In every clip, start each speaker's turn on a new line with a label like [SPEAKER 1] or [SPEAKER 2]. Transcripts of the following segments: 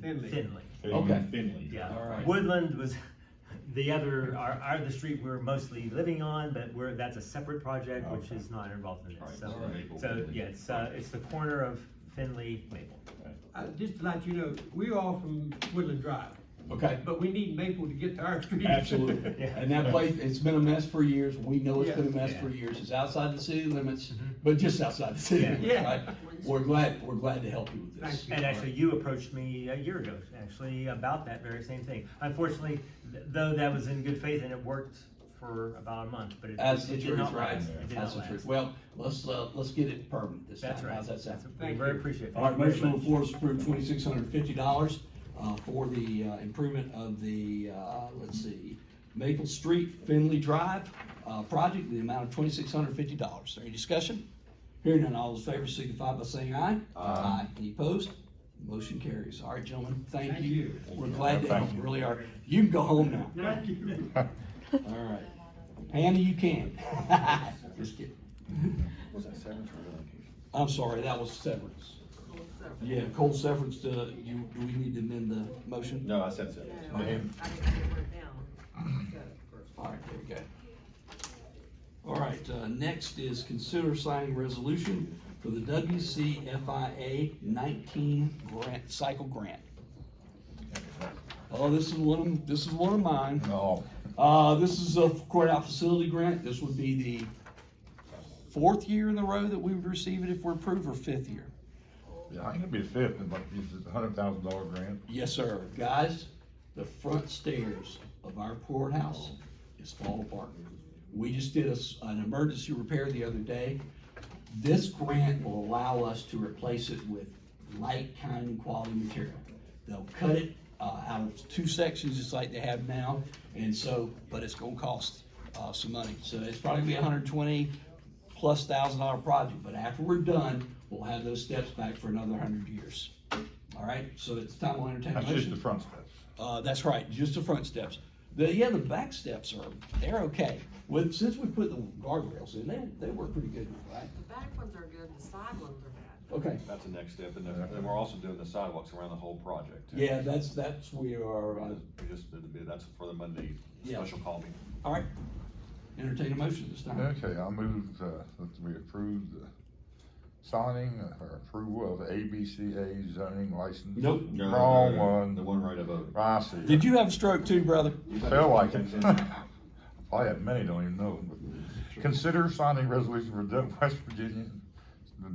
[SPEAKER 1] Finley.
[SPEAKER 2] Finley.
[SPEAKER 3] They're
[SPEAKER 4] Okay.
[SPEAKER 3] in Finley.
[SPEAKER 1] All
[SPEAKER 2] Yeah,
[SPEAKER 1] right.
[SPEAKER 2] Woodland was the other, are, are the street we're mostly living on, but we're, that's a separate project, which
[SPEAKER 3] Okay.
[SPEAKER 2] is not involved in
[SPEAKER 3] Right,
[SPEAKER 2] this,
[SPEAKER 3] so
[SPEAKER 2] so.
[SPEAKER 3] Maple
[SPEAKER 2] So,
[SPEAKER 3] Finley.
[SPEAKER 2] yeah, it's, uh, it's the corner of Finley, Maple.
[SPEAKER 1] I, just to let you know, we're all from Woodland Drive,
[SPEAKER 4] Okay,
[SPEAKER 1] but we need Maple to get to our street.
[SPEAKER 4] absolutely.
[SPEAKER 2] Yeah.
[SPEAKER 4] And that place, it's been a mess for years. We know it's been a mess
[SPEAKER 2] Yeah.
[SPEAKER 4] for years. It's outside the city limits,
[SPEAKER 2] Mhm.
[SPEAKER 4] but just outside the city
[SPEAKER 2] Yeah.
[SPEAKER 4] limits,
[SPEAKER 1] Yeah.
[SPEAKER 4] right? We're glad, we're glad to help you with this.
[SPEAKER 1] Thank
[SPEAKER 2] And actually, you approached me a year ago, actually, about that very same thing. Unfortunately, th- though that was in good faith and it worked for about a month, but it
[SPEAKER 4] That's
[SPEAKER 2] it
[SPEAKER 4] the
[SPEAKER 2] did
[SPEAKER 4] truth,
[SPEAKER 2] not
[SPEAKER 4] right?
[SPEAKER 2] last. It did
[SPEAKER 4] That's
[SPEAKER 2] not
[SPEAKER 4] the truth.
[SPEAKER 2] last.
[SPEAKER 4] Well, let's, uh, let's get it permanent this time.
[SPEAKER 2] That's right.
[SPEAKER 4] How's that sound?
[SPEAKER 2] We
[SPEAKER 1] Thank
[SPEAKER 2] very
[SPEAKER 1] you.
[SPEAKER 2] appreciative.
[SPEAKER 4] All right, motion on the floor is to approve twenty-six hundred fifty dollars, uh, for the, uh, improvement of the, uh, let's see, Maple Street Finley Drive, uh, project, the amount of twenty-six hundred fifty dollars. Any discussion? Hearing none, all those in favor signify by saying aye. Aye. Any opposed? Motion carries. All right, gentlemen, thank
[SPEAKER 1] Thank
[SPEAKER 4] you.
[SPEAKER 1] you.
[SPEAKER 4] We're glad to help,
[SPEAKER 3] Thank you.
[SPEAKER 4] really are. You can go home now.
[SPEAKER 1] Thank you.
[SPEAKER 4] All right. Hannah, you can. Just kidding.
[SPEAKER 3] Was that severance or relocation?
[SPEAKER 4] I'm sorry, that was severance. Yeah, cold severance, uh, you, do we need to amend the motion?
[SPEAKER 3] No, I said severance.
[SPEAKER 5] No, I didn't write down.
[SPEAKER 4] All right, there we go. All right, uh, next is consider signing resolution for the WCFIA nineteen grant, cycle grant. Oh, this is one of, this is one of mine.
[SPEAKER 3] No.
[SPEAKER 4] Uh, this is a courthouse facility grant. This would be the fourth year in a row that we would receive it if we're approved, or fifth year.
[SPEAKER 6] Yeah, I think it'd be a fifth, but this is a hundred thousand dollar grant.
[SPEAKER 4] Yes, sir. Guys, the front stairs of our courthouse is falling apart. We just did a s an emergency repair the other day. This grant will allow us to replace it with light, kind, and quality material. They'll cut it, uh, out of two sections, just like they have now, and so, but it's gonna cost, uh, some money. So it's probably be a hundred and twenty plus thousand dollar project, but after we're done, we'll have those steps back for another hundred years. All right, so it's time we'll entertain a
[SPEAKER 6] That's just the
[SPEAKER 4] motion.
[SPEAKER 6] front steps.
[SPEAKER 4] Uh, that's right, just the front steps. The, yeah, the back steps are, they're okay. With, since we put the guardrails in, they, they work pretty good, right?
[SPEAKER 5] The back ones are good, the side ones are bad.
[SPEAKER 4] Okay.
[SPEAKER 7] That's the next step, and then, then we're also doing the sidewalks around the whole project. too.
[SPEAKER 4] Yeah, that's, that's, we are, uh,
[SPEAKER 7] We just did the bid, that's for the Monday
[SPEAKER 4] Yeah.
[SPEAKER 7] special call meeting.
[SPEAKER 4] all right. Entertain a motion this
[SPEAKER 2] Uh-huh.
[SPEAKER 4] time.
[SPEAKER 6] Okay, I'll move, uh, that we approve the signing uh, or approval of ABCA zoning license.
[SPEAKER 4] Nope.
[SPEAKER 7] No, no, no,
[SPEAKER 6] Wrong
[SPEAKER 7] no, no, The
[SPEAKER 6] one.
[SPEAKER 7] one right above.
[SPEAKER 6] I see.
[SPEAKER 4] Did you have a stroke too, brother?
[SPEAKER 6] Felt like it. Probably had many, don't even know. but- Consider signing resolution for Dub- West Virginia, the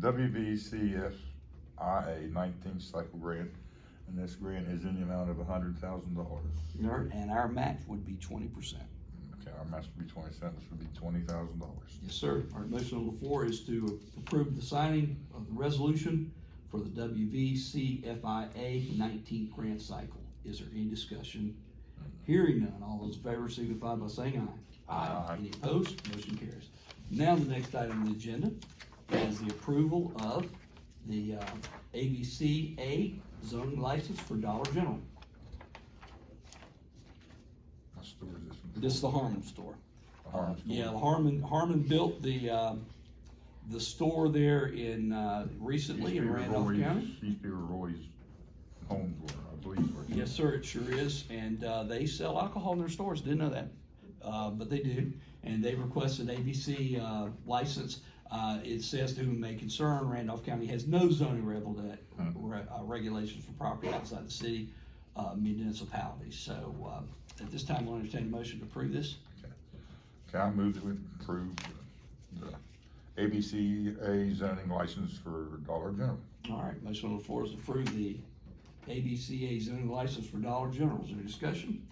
[SPEAKER 6] WVCFIA nineteen cycle grant. And this grant is in the amount of a hundred thousand dollars.
[SPEAKER 4] And our match would be twenty percent.
[SPEAKER 6] Okay, our match would be twenty cents, would be twenty thousand dollars.
[SPEAKER 4] Yes, sir. Our motion on the floor is to approve the signing of the resolution for the WVCFIA nineteen grant cycle. Is there any discussion? Hearing none, all those in favor signify by saying aye.
[SPEAKER 6] Aye.
[SPEAKER 4] Any opposed? Motion carries. Now, the next item on the agenda is the approval of the uh, ABCA zoning license for Dollar General.
[SPEAKER 6] What store is this? one?
[SPEAKER 4] This is the Harmon store.
[SPEAKER 6] Arm store.
[SPEAKER 4] Yeah, Harmon, Harmon built the, um, the store there in, uh, recently in
[SPEAKER 6] Used to be
[SPEAKER 4] Randolph
[SPEAKER 6] Roy's-
[SPEAKER 4] County.
[SPEAKER 6] Used to be Roy's homes were, I believe. were.
[SPEAKER 4] Yes, sir, it sure is, and, uh, they sell alcohol in their stores, didn't know that, uh, but they do. And they request an ABC, uh, license, uh, it says to whom may concern, Randolph County has no zoning revel that,
[SPEAKER 6] Hmm.
[SPEAKER 4] re- uh, regulations for property outside the city, uh, municipalities, so, uh, at this time, I'll entertain a motion to approve this.
[SPEAKER 6] Okay, I move that we approve the ABCA zoning license for Dollar General.
[SPEAKER 4] All right, motion on the floor is to approve the ABCA zoning license for Dollar General. Is there any discussion?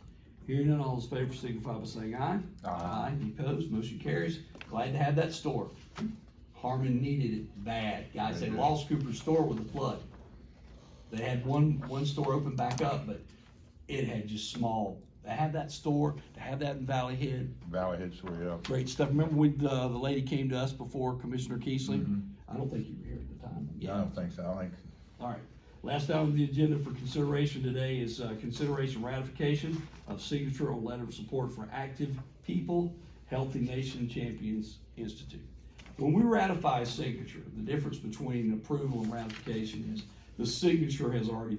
[SPEAKER 4] Hearing none, all those in favor signify by saying aye.
[SPEAKER 6] Aye.
[SPEAKER 4] Any opposed? Motion carries. Glad to have that store. Harmon needed it bad. Guys, they lost Cooper's store with the flood. They had one, one store open back up, but it had just small. To have that store, to have that in Valley Head,
[SPEAKER 6] Valley Head Soy Up.
[SPEAKER 4] great stuff. Remember when the, the lady came to us before, Commissioner Keesling?
[SPEAKER 6] Mhm.
[SPEAKER 4] I don't think you were here at the time.
[SPEAKER 6] I don't think so, I think
[SPEAKER 4] All right, last item on the agenda for consideration today is uh, consideration ratification of signature or letter of support for Active People Healthy Nation Champions Institute. When we ratify a signature, the difference between approval and ratification is the signature has already